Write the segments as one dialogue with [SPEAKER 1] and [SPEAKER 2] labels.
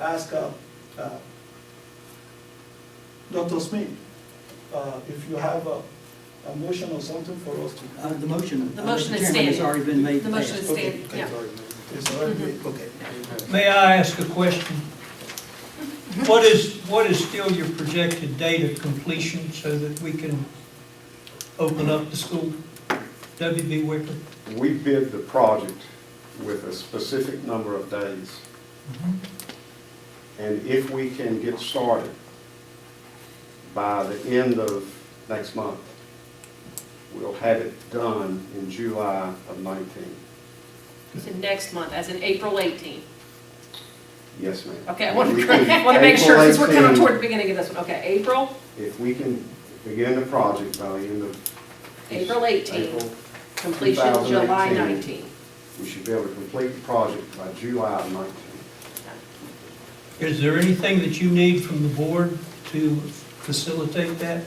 [SPEAKER 1] ask uh, uh, Dr. Smith uh, if you have a a motion or something for us to.
[SPEAKER 2] Uh, The motion.
[SPEAKER 3] The motion is
[SPEAKER 2] Mr. Chairman, has
[SPEAKER 3] standing.
[SPEAKER 2] already been made.
[SPEAKER 3] The motion is
[SPEAKER 2] passed.
[SPEAKER 1] Okay,
[SPEAKER 3] Stand- yeah. Mm-hmm.
[SPEAKER 1] It's already, made, okay.
[SPEAKER 4] May I ask a question? What is, what is still your projected date of completion so that we can open up the school? WB Wicker?
[SPEAKER 5] We bid the project with a specific number of days, and if we can get started by the end of next month, we'll have it done in July of 19.
[SPEAKER 3] So next month, as in April 18.
[SPEAKER 5] Yes, ma'am.
[SPEAKER 3] Okay, I want
[SPEAKER 5] If we
[SPEAKER 3] to,
[SPEAKER 5] can-
[SPEAKER 3] want to make sure, since we're
[SPEAKER 5] April
[SPEAKER 3] coming
[SPEAKER 5] 18,
[SPEAKER 3] toward the beginning of this one. Okay, April,
[SPEAKER 5] If we can begin the project by the end of.
[SPEAKER 3] April 18,
[SPEAKER 5] April,
[SPEAKER 3] completion July 19.
[SPEAKER 5] 2018. We should be able to complete the project by July of 19.
[SPEAKER 4] Is there anything that you need from the board to facilitate that?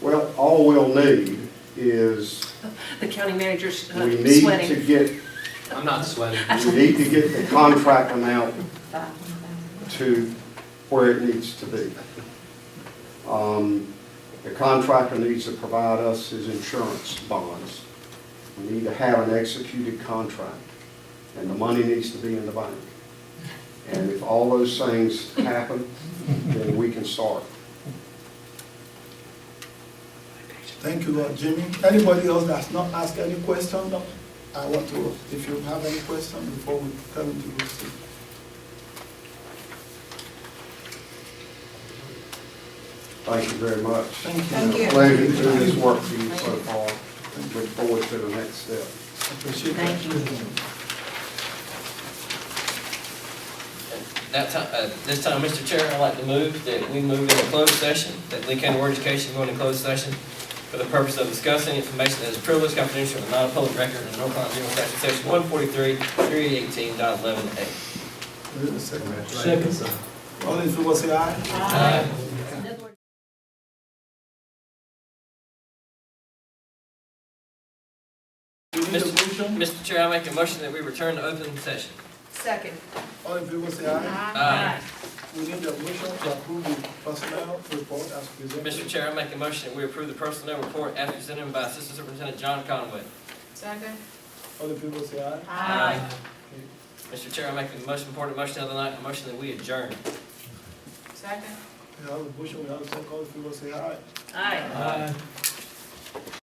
[SPEAKER 5] Well, all we'll need is,
[SPEAKER 3] The county manager's uh,
[SPEAKER 5] we need to
[SPEAKER 3] sweating.
[SPEAKER 5] get,
[SPEAKER 6] I'm not sweating.
[SPEAKER 5] we need to get the contract amount to where it needs to be. Um, The contractor needs to provide us his insurance bonds. We need to have an executed contract, and the money needs to be in the bank. And if all those things happen, then we can start.
[SPEAKER 1] Thank you, uh, Jimmy. Anybody else that's not asked any question, uh, I want to, if you have any question before we come into this.
[SPEAKER 5] Thank you very much.
[SPEAKER 1] Thank you.
[SPEAKER 5] It's been a Pleasure doing this work for you so far. Look forward to the next step.
[SPEAKER 1] Appreciate that.
[SPEAKER 3] Thank you.
[SPEAKER 6] That time, uh, this time, Mr. Chair, I'd like to move that we move into closed session, that Lee County Board of Education go into closed session for the purpose of discussing information that is privileged, confidential, and not a public record in North Carolina General Statute Section one forty-three, three eighteen dot eleven A.
[SPEAKER 1] Wait a second.
[SPEAKER 4] Second.
[SPEAKER 1] All in favor, say aye. You need a motion?
[SPEAKER 6] Mr. Chair, I make a motion that we return to open session.
[SPEAKER 3] Second.
[SPEAKER 1] All in favor, say aye.
[SPEAKER 6] Aye.
[SPEAKER 1] We need a motion to approve the personnel report as presented.
[SPEAKER 6] Mr. Chair, I make a motion that we approve the personnel report as presented by Assistant Superintendent John Conway.
[SPEAKER 3] Second.
[SPEAKER 1] All in favor, say aye.
[SPEAKER 6] Ah.
[SPEAKER 3] Aye.
[SPEAKER 1] Okay.
[SPEAKER 6] Mr. Chair, I make the most important motion of the night, a motion that we adjourn.
[SPEAKER 3] Second.
[SPEAKER 1] We have a motion, we have a second, all in favor, say aye.
[SPEAKER 3] Aye.
[SPEAKER 6] Aye.